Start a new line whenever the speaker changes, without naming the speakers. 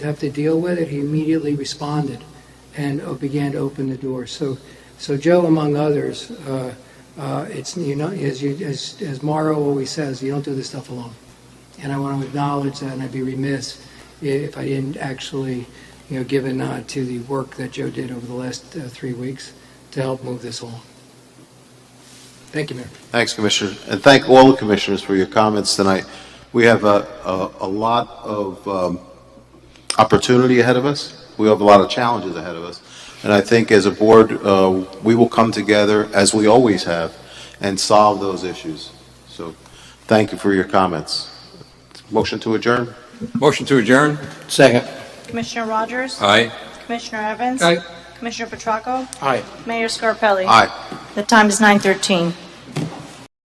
have to deal with it, he immediately responded and uh, began to open the door. So, so Joe, among others, uh, uh, it's you know as you as as Morrow always says, you don't do this stuff alone. And I want to acknowledge that, and I'd be remiss if I didn't actually, you know, give a nod to the work that Joe did over the last uh, three weeks to help move this along. Thank you, Mayor.
Thanks, Commissioner, and thank all the commissioners for your comments tonight. We have a, a, a lot of um, opportunity ahead of us. We have a lot of challenges ahead of us. And I think as a board, uh, we will come together, as we always have, and solve those issues. So, thank you for your comments. Motion to adjourn?
Motion to adjourn?
Second.
Commissioner Rogers?
Aye.
Commissioner Evans?
Aye.
Commissioner Petracco?
Aye.
Mayor Scarpelli?
Aye.
The time is 9:13.